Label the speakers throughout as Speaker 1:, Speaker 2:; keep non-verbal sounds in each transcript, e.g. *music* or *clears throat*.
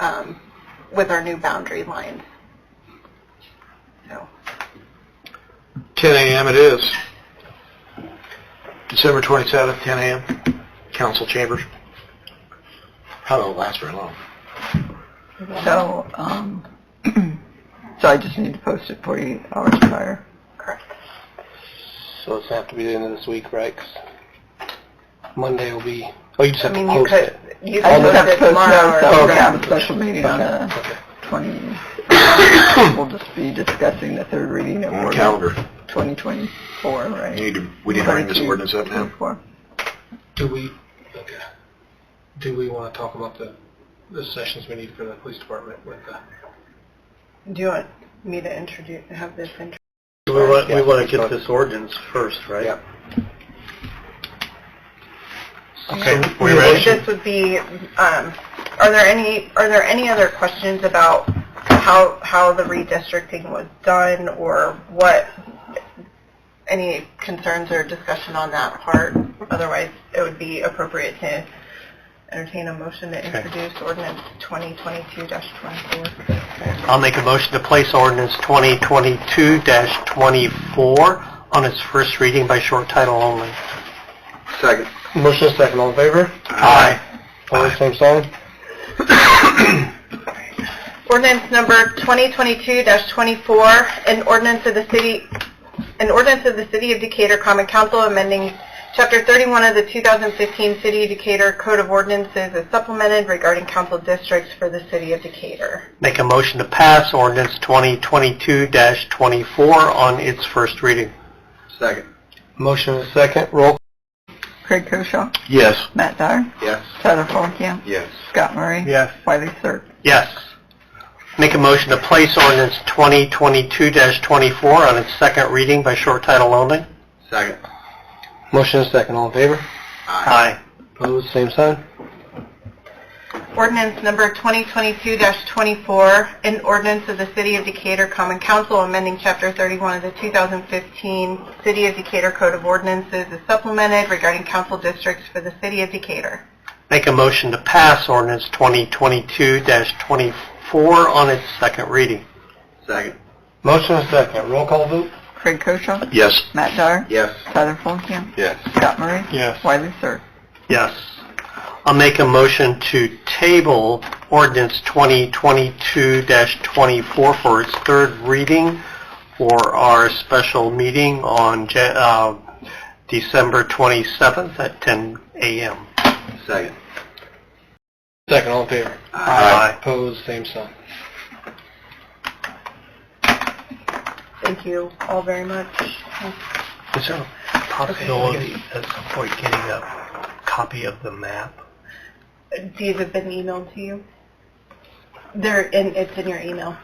Speaker 1: um, with our new boundary lines. So,
Speaker 2: 10 a.m. it is. December 27th, 10 a.m., council chambers. How will it last very long?
Speaker 3: So, um, so I just need to post it 48 hours prior.
Speaker 1: correct.
Speaker 2: So it's have to be the end of this week, right? 'Cause Monday will be, oh, you just
Speaker 1: I
Speaker 2: have to
Speaker 1: mean, you
Speaker 2: post
Speaker 1: could,
Speaker 2: it.
Speaker 1: you
Speaker 3: I
Speaker 1: could
Speaker 3: just have
Speaker 1: post it
Speaker 3: to post
Speaker 1: tomorrow.
Speaker 3: notice that we're
Speaker 1: or-
Speaker 3: going to
Speaker 2: Okay.
Speaker 3: have a special meeting on the
Speaker 2: Okay.
Speaker 3: 20. *coughs* We'll just be discussing the third reading of
Speaker 2: On the
Speaker 3: ordinance
Speaker 2: calendar.
Speaker 3: 2024, right?
Speaker 2: You need to, we need to bring this ordinance up now.
Speaker 3: 24.
Speaker 4: Do we, okay, do we want to talk about the, the sessions we need for the police department with the?
Speaker 1: Do you want me to introduce, have this intro?
Speaker 4: We
Speaker 2: want- we wanna get
Speaker 4: this ordinance first, right? Yeah.
Speaker 2: Okay, we
Speaker 1: This would be, um, are there any, are there any other questions about how, how the redistricting was done or what, any concerns or discussion on that part? Otherwise, it would be appropriate to entertain a motion to introduce ordinance 2022-24.
Speaker 4: I'll make a motion to place ordinance 2022-24 on its first reading by short title only.
Speaker 2: Second.
Speaker 4: Motion second, all in favor?
Speaker 2: Aye.
Speaker 4: All same sign?
Speaker 1: Ordinance number 2022-24, an ordinance of the city, an ordinance of the City of Decatur Common Council amending Chapter 31 of the 2015 City of Decatur Code of Ordinances as supplemented regarding council districts for the City of Decatur.
Speaker 4: Make a motion to pass ordinance 2022-24 on its first reading.
Speaker 2: Second.
Speaker 4: Motion is second, roll.
Speaker 3: Craig Koshaw,
Speaker 2: Yes.
Speaker 3: Matt Dyer,
Speaker 2: Yes.
Speaker 3: Tyler Forkamp,
Speaker 2: Yes.
Speaker 3: Scott Murray.
Speaker 4: Yes.
Speaker 3: Wiley Sirk.
Speaker 4: Yes. Make a motion to place ordinance 2022-24 on its second reading by short title only.
Speaker 2: Second.
Speaker 4: Motion is second, all in favor? Aye. Opposed, same sign?
Speaker 1: Ordinance number 2022-24, an ordinance of the City of Decatur Common Council amending Chapter 31 of the 2015 City of Decatur Code of Ordinances as supplemented regarding council districts for the City of Decatur.
Speaker 4: Make a motion to pass ordinance 2022-24 on its second reading.
Speaker 2: Second.
Speaker 4: Motion is second, roll call vote?
Speaker 3: Craig Koshaw,
Speaker 2: Yes.
Speaker 3: Matt Dyer,
Speaker 2: Yes.
Speaker 3: Tyler Forkamp,
Speaker 2: Yes.
Speaker 3: Scott Murray.
Speaker 4: Yes.
Speaker 3: Wiley Sirk.
Speaker 4: Yes. I'll make a motion to table ordinance 2022-24 for its third reading for our special meeting on Ja- uh, December 27th at 10 a.m.
Speaker 2: Second.
Speaker 4: Second, all in favor?
Speaker 2: Aye.
Speaker 4: Opposed, same sign.
Speaker 1: Thank you all very much.
Speaker 4: Is there a possibility at some point getting a copy of the map?
Speaker 1: These have been emailed to you. They're in, it's in your email.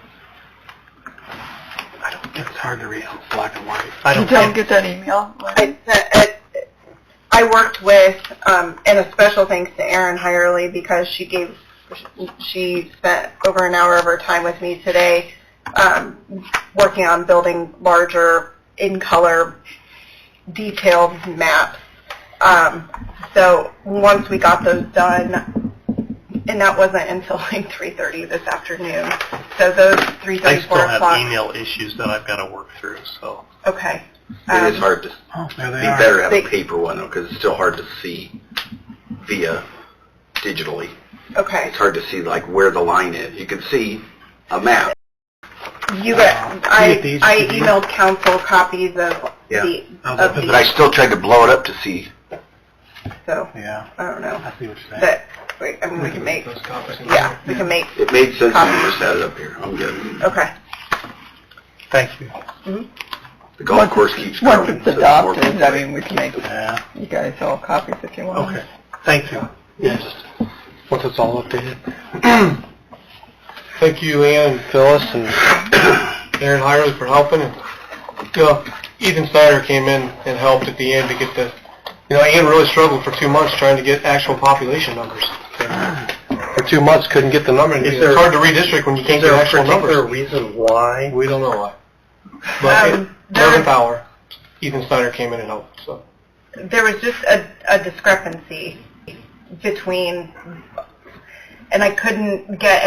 Speaker 4: I don't think it's hard to read, it's black and white. I
Speaker 3: You
Speaker 4: don't
Speaker 3: don't
Speaker 4: think,
Speaker 3: get that email?
Speaker 1: I, I- I worked with, um, and a special thanks to Erin Hirely because she gave, she spent over an hour of her time with me today, um, working on building larger, in-color, detailed maps. Um, so once we got those done, and that wasn't until like 3:30 this afternoon, so those 3:30, 4
Speaker 4: I still
Speaker 1: o'clock-
Speaker 4: have email issues that I've got to work through, so.
Speaker 1: Okay.
Speaker 2: It is
Speaker 1: Um,
Speaker 2: hard to, it'd
Speaker 4: Oh, there
Speaker 2: be
Speaker 4: they
Speaker 2: better to have a
Speaker 1: They-
Speaker 2: paper one though, because it's still hard to see via digitally.
Speaker 1: Okay.
Speaker 2: It's hard to see like where the line is. You can see a map.
Speaker 1: You got,
Speaker 4: Uh,
Speaker 1: I,
Speaker 4: get these
Speaker 1: I
Speaker 4: to you.
Speaker 1: emailed council copies of
Speaker 2: Yeah.
Speaker 1: the,
Speaker 4: Oh,
Speaker 1: of
Speaker 2: But I
Speaker 1: the,
Speaker 2: still tried to blow it up to see.
Speaker 1: so,
Speaker 4: Yeah,
Speaker 1: I don't know.
Speaker 4: I see what you're saying.
Speaker 1: But, wait, I mean, we can make,
Speaker 4: Those copies.
Speaker 1: yeah, we can make,
Speaker 2: It made sense when you just had it up here. I'm good.
Speaker 3: Uh,
Speaker 1: okay.
Speaker 4: Thank you.
Speaker 2: The golf course keeps
Speaker 3: Once
Speaker 2: growing.
Speaker 3: it's
Speaker 2: so the more
Speaker 3: adopted,
Speaker 2: people-
Speaker 3: I mean, we can make
Speaker 4: Yeah,
Speaker 3: you guys all copies if you want.
Speaker 4: okay. Thank you. Yeah, just, once it's all updated. *clears throat* Thank you, Ann, Phyllis, and Aaron Hirely for helping. And, you know, Ethan Snyder came in and helped at the end to get the, you know, Ann really struggled for two months trying to get actual population numbers. For two months, couldn't get the number. It's hard to redistrict when you can't get actual numbers. Is there a reason why? We don't know why. But it-
Speaker 1: Um, there was,
Speaker 4: Power, Ethan Snyder came in and helped, so.
Speaker 1: there was just a, a discrepancy between, and I couldn't get